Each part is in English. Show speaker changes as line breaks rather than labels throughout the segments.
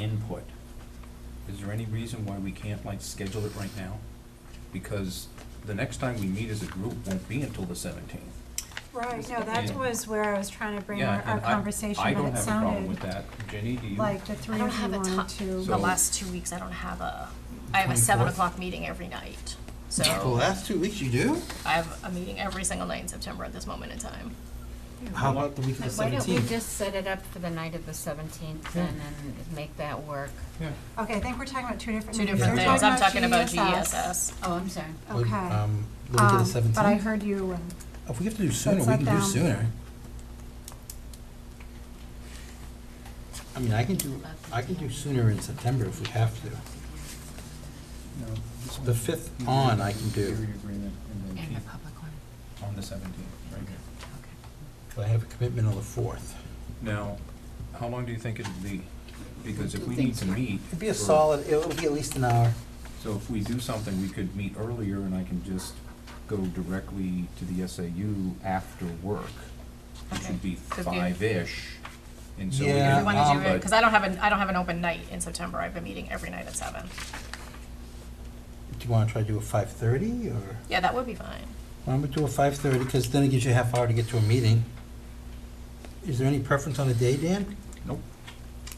input. Is there any reason why we can't like schedule it right now? Because the next time we meet as a group won't be until the seventeenth.
Right, no, that
Yeah.
was where I was trying to bring
Yeah,
our, our
and I-
conversation, but it
I don't have a problem with
sounded
that. Jenny, do you?
like the three
I don't
of you
have a
wanted
ti-
to.
So-
The last two weeks, I don't have a, I have a seven
24th?
o'clock meeting every night.
The
So
last two weeks you do?
I have a meeting every single night in September at this moment in time.
How about the week of the
Why don't we
seventeenth?
just set it up for the night of the seventeenth and then make that work?
Yeah.
Okay, I think we're talking about two different.
Two
meetings.
different
We're
things. I'm talking about E GESS.
Oh, I'm sorry.
Okay.
Um, the week of the
Um,
seventeenth?
but I heard you and,
If we have to do sooner, we
let
can do
them-
sooner. I mean, I can do, I can do sooner in September if we have to. The fifth on I can do.
And the public one,
On the seventeenth, right here.
okay.
But I have a commitment on the fourth.
Now, how long do you think it'll be? Because if we need to meet.
It'd be a
for-
solid, it'll be at least an hour.
So if we do something, we could meet earlier and I can just go directly to the SAU after work. It
Okay.
should be
Could be-
five-ish. And so we
Yeah,
If
can
you wanna do it,
um,
because I don't have an, I don't have an open night in September. I've been meeting every night at seven.
Do you wanna try to do a five-thirty, or?
Yeah, that would be fine.
Why don't we do a five-thirty, because then it gives you a half hour to get to a meeting. Is there any preference on a day, Dan?
Nope.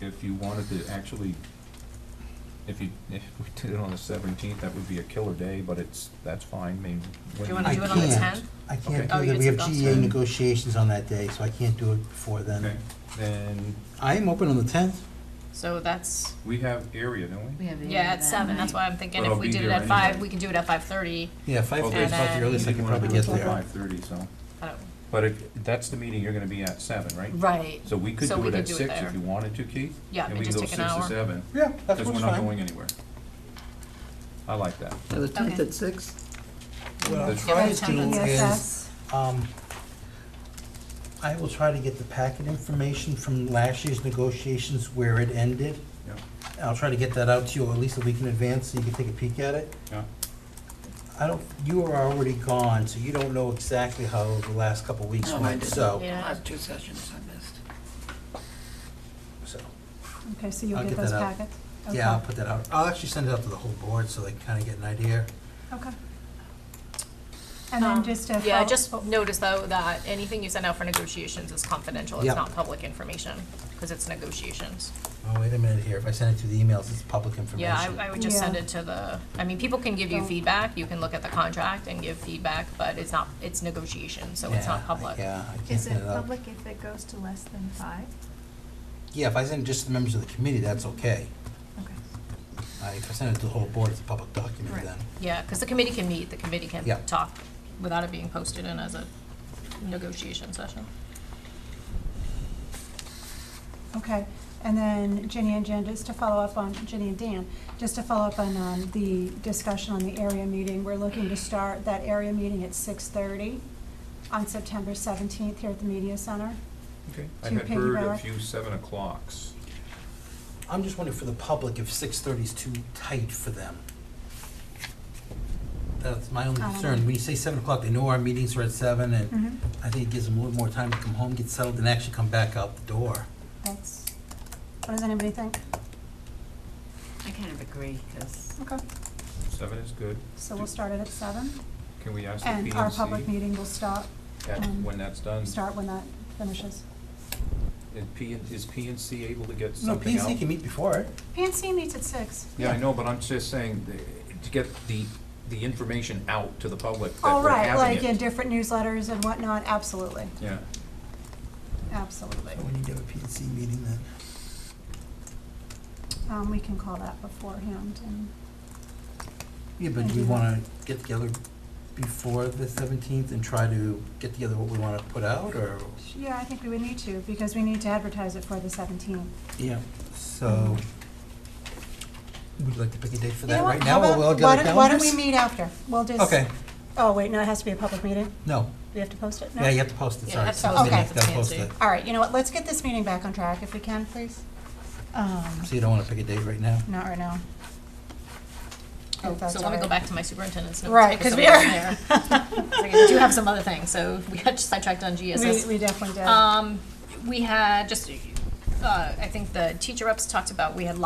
If you wanted to actually, if you, if we did it on the seventeenth, that would be a killer day, but it's, that's fine, I mean. when
Do you wanna
I
do it on the
can't.
tenth?
I
Okay.
can't
Oh,
do
you did
that, we have
some
GEA
outside.
negotiations on that day, so I can't do it before
Okay,
then.
then
I am open on the tenth.
So that's,
we have area, don't
We
we?
have the.
yeah, at seven. That's why I'm thinking
But
if
I'll
we
be
did it
there
at five,
anyway.
we can do it at five thirty.
Yeah, five-thirty
Okay.
is about the earliest I
You
could
didn't
probably
wanna
get
do it till
there.
Five-thirty, so,
I don't,
but if, that's the meeting you're gonna be at seven, right?
right.
So we could
So
do
we
it
could
at
do it
six
there.
if you wanted to, Keith?
Yeah,
and
we
we can
just
go
take
six
an
to
hour.
seven,
Yeah, that's
because we're
what's
not going
fine.
anywhere. I like that.
Yeah, the tenth
Okay.
at six.
What I'll
The-
try
Yeah,
to do is,
ESS,
um, I will try to get the packet information from last year's negotiations where it ended.
Yeah,
I'll try to get that out to you at least a week in advance, so you can take a peek at it.
yeah.
I don't, you are already gone, so you don't know exactly how the last couple of weeks
No, Oh, I
went,
didn't.
so,
Yeah.
Last two sessions I missed.
so,
okay, so you'll
I'll
get
get
those
that out.
packets?
yeah, I'll
Okay.
put that out. I'll actually send it out to the whole board so they can kinda get an idea.
Okay. And then
Um,
just a.
Yeah,
follow-
just
oh,
notice though that anything you send out for negotiations is confidential,
Yeah.
it's not public information, because it's negotiations.
Oh, wait a minute here, if I send it to the emails, it's public information.
Yeah, I, I would just send
Yeah.
it to the, I mean, people can give you
Don't-
feedback, you can look at the contract and give feedback, but it's not, it's negotiation, so it's
Yeah,
not public.
Yeah, I can't
Is
send
it
it out.
public if it goes to less than five?
Yeah, if I send it just to the members of the committee, that's okay.
Okay.
Uh, If I send it to the whole board, it's a public document
Right.
then.
Yeah, because the committee can meet, the committee can
Yeah.
talk without it being posted in as a negotiation session.
Okay, and then Ginny and Jen, just to follow up on, Ginny and Dan, just to follow up on, um, the discussion on the area meeting, we're looking to start that area meeting at six thirty on September seventeenth here at the media center.
Okay. I
To
had heard a
piggyback.
few seven o'clocks.
I'm just wondering for the public if six thirty is too tight for them. That's my only
Um,
I don't
concern.
know.
When you say seven o'clock, they know our meetings are at seven and
Mm-hmm.
I think it gives them a little more time to come home, get settled, and actually come back out the door.
That's, what does anybody think?
I kind of agree, because
Okay,
Seven is good.
so we'll start it at seven,
Can we ask the
and our public
PNC
meeting will stop,
at,
um,
when that's done?
start when that finishes.
Is P, is PNC able to get
No,
something out?
PNC can meet before it.
PNC meets at six.
Yeah, I know, but I'm just saying, the- to get the, the information out to the public that
All
we're
right,
having
like in
it.
different newsletters and whatnot, absolutely,
Yeah,
absolutely.
But we need to have a PNC meeting then.
Um, we can call that beforehand and.
Yeah, but do we wanna get together before the seventeenth and try to get together what we wanna put out, or?
Yeah, I think we would need to, because we need to advertise it for the seventeenth.
Yeah. So, would you like to pick a date for
You
that
know what,
right
how
now, while
about-
we all get
why
our
don't-
calendars?
Why don't we meet after? We'll just.
Okay,
Oh, wait, no, it has to be a public meeting.
no,
We have to post it? No?
yeah, you have to post it,
Yeah,
sorry.
that's
September
okay.
ninth,
That's
gotta post
fancy.
it.
All right, you know what, let's get this meeting back on track if we can, please. Um,
So you don't wanna pick a date right now?
not right now. If
Oh,
that's
so
all
let me go
right.
back to my superintendent's notes.
Right, 'cause we
I'm
are-
there. So We do have some other things, so we got sidetracked on GSS.
We, we definitely did.
Um, we had just, uh, I think the teacher reps talked about, we had